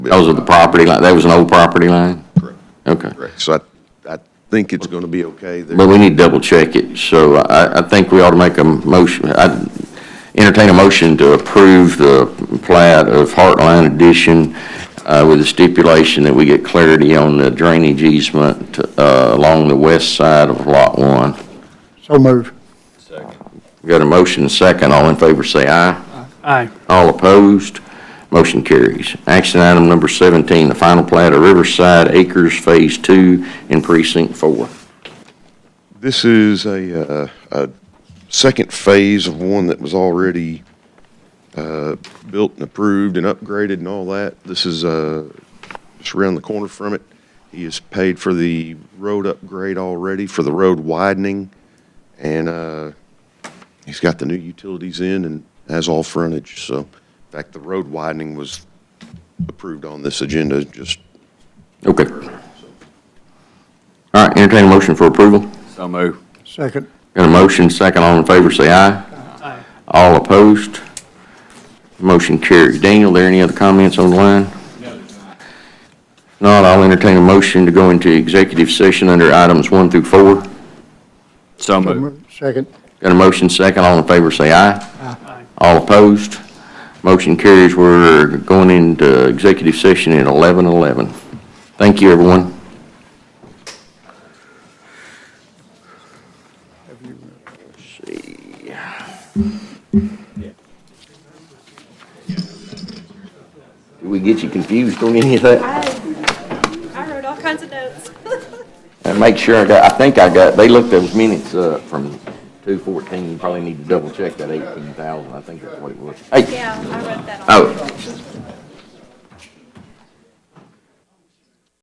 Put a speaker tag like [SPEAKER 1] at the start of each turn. [SPEAKER 1] Because of the property line, that was an old property line?
[SPEAKER 2] Correct.
[SPEAKER 1] Okay.
[SPEAKER 2] Correct. So I, I think it's going to be okay there.
[SPEAKER 1] But we need to double check it, so I, I think we ought to make a motion, I entertain a motion to approve the plat of Heartline Edition uh, with the stipulation that we get clarity on the drainage easement uh, along the west side of Lot 1.
[SPEAKER 3] So move.
[SPEAKER 1] Got a motion and second, all in favor say aye.
[SPEAKER 4] Aye.
[SPEAKER 1] All opposed, motion carries. Action item number 17, the final plat of Riverside Acres Phase 2 in Precinct 4.
[SPEAKER 2] This is a, uh, a second phase of one that was already, uh, built and approved and upgraded and all that. This is, uh, just around the corner from it. He has paid for the road upgrade already, for the road widening, and, uh, he's got the new utilities in and has all frontage, so. In fact, the road widening was approved on this agenda just
[SPEAKER 1] Okay. All right, entertain a motion for approval.
[SPEAKER 5] So move.
[SPEAKER 3] Second.
[SPEAKER 1] Got a motion, second, all in favor, say aye.
[SPEAKER 4] Aye.
[SPEAKER 1] All opposed, motion carries. Daniel, there any other comments on the line? Not, I'll entertain a motion to go into executive session under items one through four.
[SPEAKER 5] So
[SPEAKER 3] So
[SPEAKER 5] move.
[SPEAKER 3] moved. Second.
[SPEAKER 1] Got a motion, second, all in favor, say aye. All opposed, motion carries. We're going into executive session at 11:11. Thank you, everyone. Did we get you confused on any of that?
[SPEAKER 6] I wrote all kinds of notes.
[SPEAKER 1] And make sure I got, I think I got, they looked those minutes up from 214. You probably need to double check that 18,000. I think that's what it was. Hey,
[SPEAKER 6] Yeah, I wrote that all.
[SPEAKER 1] oh,